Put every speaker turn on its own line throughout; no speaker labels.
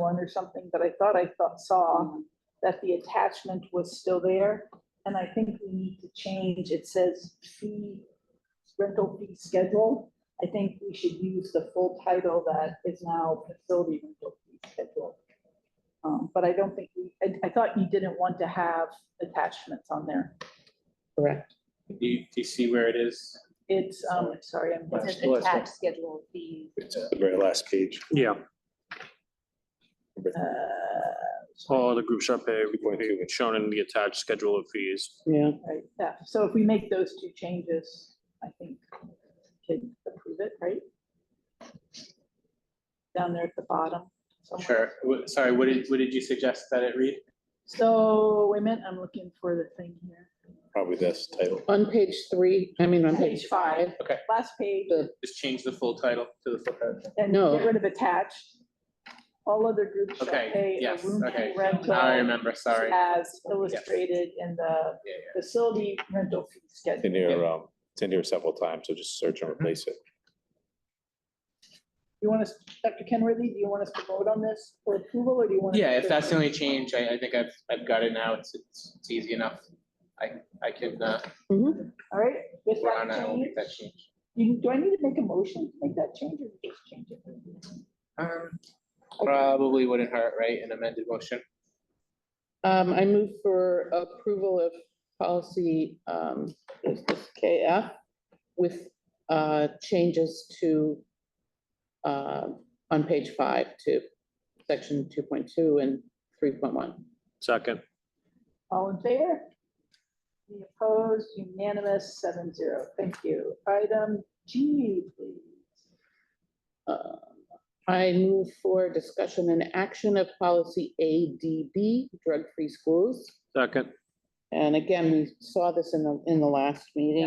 one or something, but I thought I thought, saw that the attachment was still there. And I think we need to change, it says fee, rental fee schedule. I think we should use the full title that is now facility rental fee schedule. Um, but I don't think, we- I, I thought you didn't want to have attachments on there.
correct?
Do you, do you see where it is?
It's, um, sorry, I'm.
Right.
It says attached schedule of fees.
It's at the very last page.
Yeah,
Uh,
all other groups are paid,
Going through it.
shown in the attached schedule of fees.
Yeah,
Right, yeah, so if we make those two changes, I think we can approve it, right? Down there at the bottom. somewhere.
Sure. Wh- Sorry, what did, what did you suggest that it read?
So, wait a minute, I'm looking for the thing here.
Probably this title.
on page three, I mean, on page
Page five.
five,
Last page,
Just change the full title to the full title.
and
No.
get rid of attached. All other groups shall
Okay,
pay a
yes,
room
okay.
rental
Now I remember, sorry. Yeah,
as illustrated in the
yeah.
facility rental fee
It's
schedule.
in here, um, it's in here several times, so just search and replace it.
You want us, Dr. Kenworthy, do you want us to vote on this for approval, or do you want?
Yeah, if that's the only change, I, I think I've, I've got it now. It's, it's it's easy enough. I, I can, uh,
All right. with
work on
that
that, I will
change-
make that change.
You, do I need to make a motion to make that change or just change it?
Um, Probably wouldn't hurt, right? An amended motion.
um, I move for approval of policy, um, what's this, KF with, uh, changes to, uh, on page five to section two point two and three point one.
Second,
All in favor? Any opposed? Unanimous, seven zero. Thank you. Item G, please.
Uh, I move for discussion and action of policy ADB, drug-free schools.
second,
And again, we saw this in the, in the last meeting.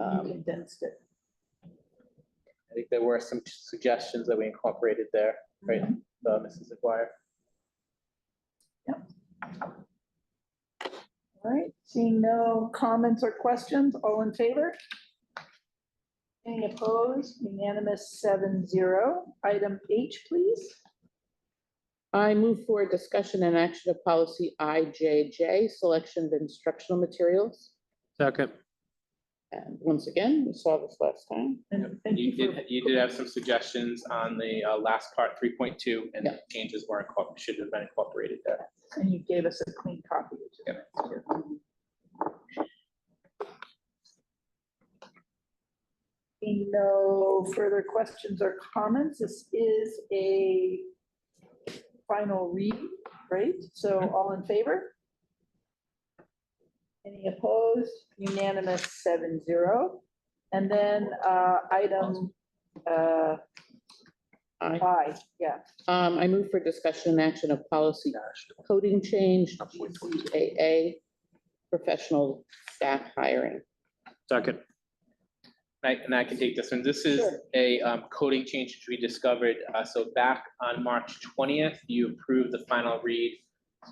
You
Um,
condensed it.
I think there were some suggestions that we incorporated there, right,
Mhm.
uh, Mrs. McGuire?
All right, seeing no comments or questions, all in favor? Any opposed? Unanimous, seven zero. Item H, please.
I move for discussion and action of policy IJJ, selection of instructional materials.
second,
And once again, we saw this last time.
And thank
You
you
did, you did have some suggestions on the uh, last part, three point two, and
Yeah.
changes were incorporated, should have been incorporated there.
for, and you gave us a clean copy. which is nice, too. Seeing No further questions or comments. This is a final read, right? So all in favor? Any opposed? Unanimous, seven zero. And then uh, item uh,
I,
I, yeah.
um, I move for discussion and action of policy coding change, GCAA, professional staff hiring.
second,
And I, and I can take this one. This is
Sure.
a um, coding change which we discovered. Uh, So back on March twentieth, you approved the final read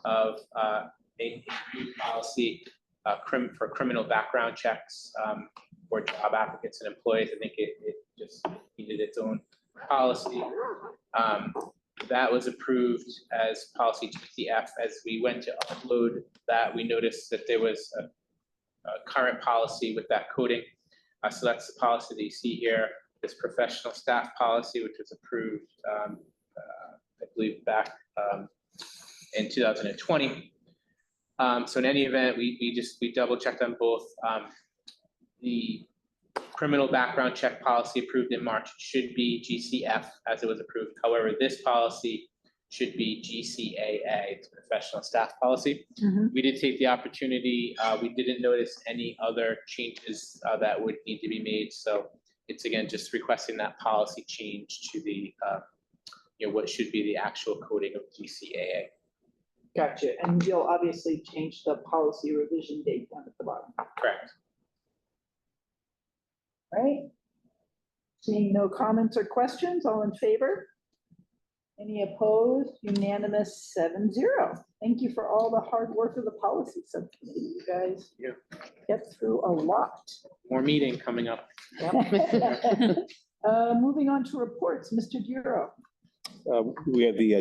of uh, a new policy uh, crim, for criminal background checks um, for job applicants and employees. I think it, it just needed its own policy. Um, That was approved as policy GCF. As we went to upload that, we noticed that there was a a current policy with that coding. Uh, so that's the policy that you see here, this professional staff policy, which was approved, um, uh, I believe back, um, in two thousand and twenty. Um, so in any event, we, we just, we double checked on both, um, the criminal background check policy approved in March should be GCF as it was approved. However, this policy should be GCAA, it's professional staff policy. We did take the opportunity, uh, we didn't notice any other changes, uh, that would need to be made, so it's again, just requesting that policy change to the, uh, you know, what should be the actual coding of GCAA.
Gotcha, and you'll obviously change the policy revision date down at the bottom,
Correct.
right? Seeing no comments or questions, all in favor? Any opposed? Unanimous, seven zero. Thank you for all the hard work of the policy subcommittee, you guys.
Yeah.
Get through a lot.
More meeting coming up.
Uh, moving on to reports, Mr. Duro.
Uh, we had the uh,